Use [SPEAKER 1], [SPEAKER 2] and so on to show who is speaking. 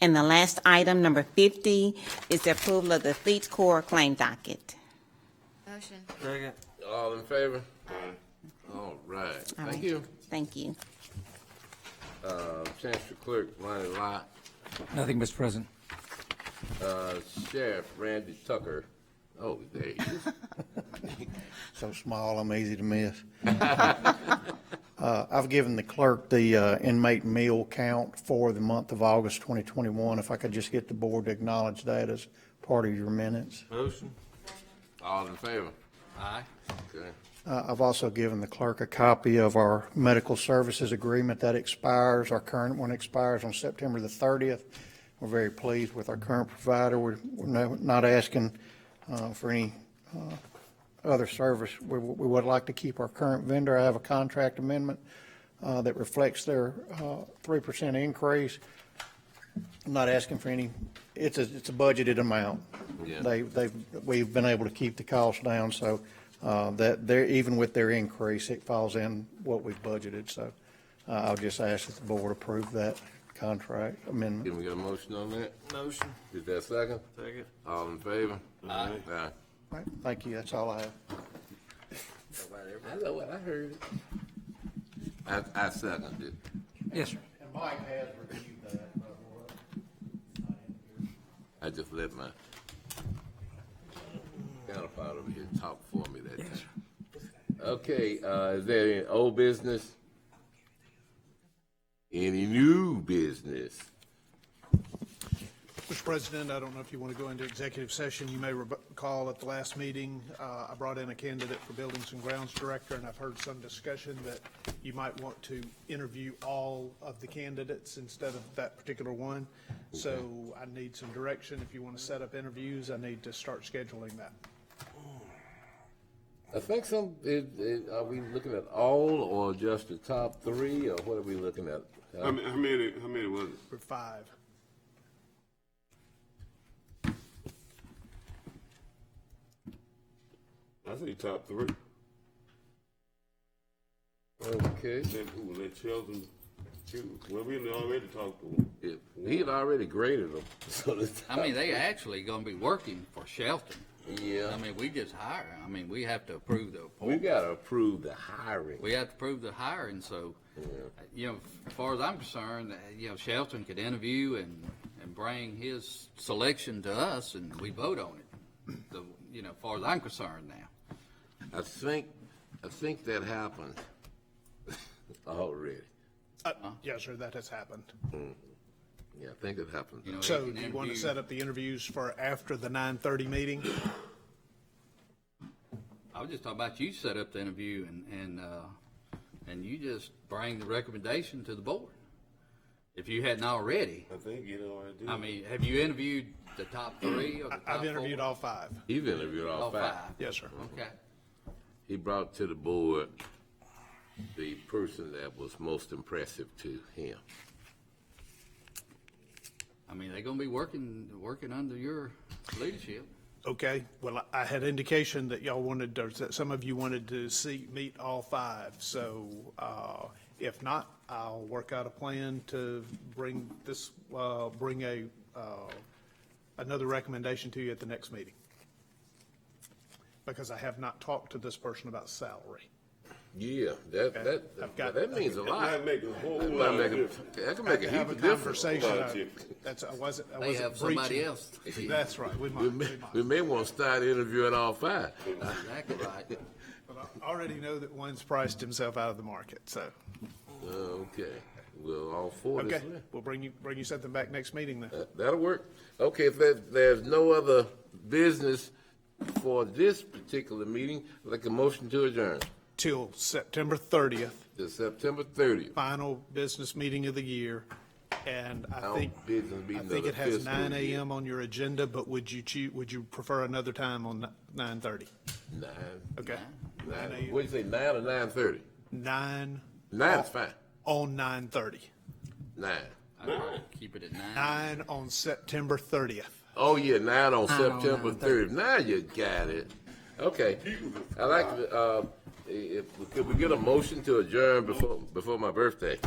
[SPEAKER 1] And the last item, number 50, is the approval of the Fleet Corps claim docket.
[SPEAKER 2] Motion.
[SPEAKER 3] Second.
[SPEAKER 4] All in favor? All right,
[SPEAKER 1] All
[SPEAKER 4] thank
[SPEAKER 1] right.
[SPEAKER 4] you.
[SPEAKER 1] Thank you.
[SPEAKER 4] Uh, Chancellor Clerk Ronnie Lott,
[SPEAKER 5] Nothing, Mr. President.
[SPEAKER 4] uh, Sheriff Randy Tucker. Oh, there he is.
[SPEAKER 6] So small, I'm easy to miss. Uh, I've given the clerk the uh, inmate meal count for the month of August 2021. If I could just get the board to acknowledge that as part of your minutes.
[SPEAKER 3] Motion.
[SPEAKER 4] All in favor?
[SPEAKER 3] Aye.
[SPEAKER 4] Okay.
[SPEAKER 6] Uh, I've also given the clerk a copy of our medical services agreement that expires. Our current one expires on September the 30th. We're very pleased with our current provider. We're we're no- not asking uh, for any uh, other service. We we would like to keep our current vendor. I have a contract amendment uh, that reflects their uh, 3% increase. I'm Not asking for any, it's a it's a budgeted amount.
[SPEAKER 4] Yeah.
[SPEAKER 6] They they've, we've been able to keep the cost down, so uh, that they're, even with their increase, it falls in what we've budgeted. So uh, I'll just ask that the board approve that contract amendment.
[SPEAKER 4] Can we get a motion on that?
[SPEAKER 3] Motion.
[SPEAKER 4] Is that second?
[SPEAKER 3] Second.
[SPEAKER 4] All in favor? Aye.
[SPEAKER 6] All right, Thank you, that's all I have.
[SPEAKER 4] I know what I heard. I, I seconded it.
[SPEAKER 5] Yes, sir.
[SPEAKER 6] And Mike has reviewed that,
[SPEAKER 4] I just let my counterpart over here talk for me that time. Okay, uh, is there any old business? Any new business?
[SPEAKER 7] Mr. President, I don't know if you want to go into executive session. You may recall at the last meeting, uh, I brought in a candidate for Buildings and Grounds Director, and I've heard some discussion that you might want to interview all of the candidates instead of that particular one. So I need some direction. If you want to set up interviews, I need to start scheduling that.
[SPEAKER 4] I think some, it, it, are we looking at all or just the top three or what are we looking at?
[SPEAKER 8] How many, how many, how many was it?
[SPEAKER 7] For five,
[SPEAKER 8] I say top three.
[SPEAKER 4] Okay,
[SPEAKER 8] Then who, let Sheldon choose. Well, we already talked to him.
[SPEAKER 4] It- he had already graded them, so the
[SPEAKER 9] I mean, they actually gonna be working for Shelton.
[SPEAKER 4] top- yeah.
[SPEAKER 9] I mean, we just hire. I mean, we have to approve the
[SPEAKER 4] We
[SPEAKER 9] appointment.
[SPEAKER 4] gotta approve the hiring.
[SPEAKER 9] We have to approve the hiring, so, you know, as far as I'm concerned, uh, you know, Shelton could interview and, and bring his selection to us and we vote on it. The, you know, as far as I'm concerned now.
[SPEAKER 4] I think, I think that happened already.
[SPEAKER 7] yes, sir, that has happened.
[SPEAKER 4] Yeah, I think it happened.
[SPEAKER 9] You know, he
[SPEAKER 7] So
[SPEAKER 9] can
[SPEAKER 7] do you want to
[SPEAKER 9] interview-
[SPEAKER 7] set up the interviews for after the 9:30 meeting?
[SPEAKER 9] I was just talking about you set up the interview and, and, uh, and you just bring the recommendation to the board. If you hadn't already.
[SPEAKER 8] I think you know I did.
[SPEAKER 9] I mean, have you interviewed the top three or the top four?
[SPEAKER 7] I've interviewed all five.
[SPEAKER 4] He's interviewed all
[SPEAKER 9] All
[SPEAKER 4] five.
[SPEAKER 7] Yes, sir.
[SPEAKER 9] Oh, Okay.
[SPEAKER 4] He brought to the board the person that was most impressive to him.
[SPEAKER 9] I mean, they're gonna be working, working under your leadership.
[SPEAKER 7] Okay, well, I I had indication that y'all wanted, or that some of you wanted to see, meet all five. So uh, if not, I'll work out a plan to bring this, uh, bring a, uh, another recommendation to you at the next meeting. Because I have not talked to this person about salary.
[SPEAKER 4] Yeah, that, that,
[SPEAKER 7] I've got-
[SPEAKER 4] that means a lot.
[SPEAKER 8] That make a whole
[SPEAKER 4] That
[SPEAKER 8] lot
[SPEAKER 4] might
[SPEAKER 8] of
[SPEAKER 4] make a-
[SPEAKER 8] difference.
[SPEAKER 4] That can make a
[SPEAKER 7] To
[SPEAKER 4] heap
[SPEAKER 7] have a
[SPEAKER 4] of difference.
[SPEAKER 7] conversation,
[SPEAKER 8] Lot of
[SPEAKER 7] I-
[SPEAKER 8] difference.
[SPEAKER 7] that's, I wasn't, I
[SPEAKER 9] They
[SPEAKER 7] wasn't
[SPEAKER 9] have somebody
[SPEAKER 7] preaching.
[SPEAKER 9] else.
[SPEAKER 7] That's right, we might,
[SPEAKER 4] We
[SPEAKER 7] we
[SPEAKER 4] may,
[SPEAKER 7] might.
[SPEAKER 4] we may want to start interviewing all five.
[SPEAKER 9] Exactly right.
[SPEAKER 7] But I already know that one's priced himself out of the market, so,
[SPEAKER 4] Uh, Okay, well, all four this
[SPEAKER 7] okay,
[SPEAKER 4] way.
[SPEAKER 7] we'll bring you, bring you something back next meeting then.
[SPEAKER 4] That- That'll work. Okay, if there, there's no other business for this particular meeting, I'd like a motion to adjourn
[SPEAKER 7] till September 30th,
[SPEAKER 4] to September thirtieth.
[SPEAKER 7] final business meeting of the year. And I
[SPEAKER 4] Our
[SPEAKER 7] think,
[SPEAKER 4] business
[SPEAKER 7] I
[SPEAKER 4] meeting
[SPEAKER 7] think
[SPEAKER 4] of
[SPEAKER 7] it
[SPEAKER 4] the
[SPEAKER 7] has
[SPEAKER 4] fiscal
[SPEAKER 7] nine
[SPEAKER 4] year.
[SPEAKER 7] AM on your agenda, but would you choo, would you prefer another time on nine thirty?
[SPEAKER 4] Nine,
[SPEAKER 7] Okay,
[SPEAKER 4] nine,
[SPEAKER 7] a.m.
[SPEAKER 4] what'd you say, nine or nine thirty?
[SPEAKER 7] nine,
[SPEAKER 4] Nine's fine,
[SPEAKER 7] on nine thirty.
[SPEAKER 4] nine.
[SPEAKER 9] I'd probably keep it at nine.
[SPEAKER 7] Nine on September thirtieth.
[SPEAKER 4] Oh, yeah, nine on
[SPEAKER 5] Nine on
[SPEAKER 4] September
[SPEAKER 5] 9:30.
[SPEAKER 4] thirtieth. Now you got it. Okay. I'd like to, uh, if, could we get a motion to adjourn before, before my birthday?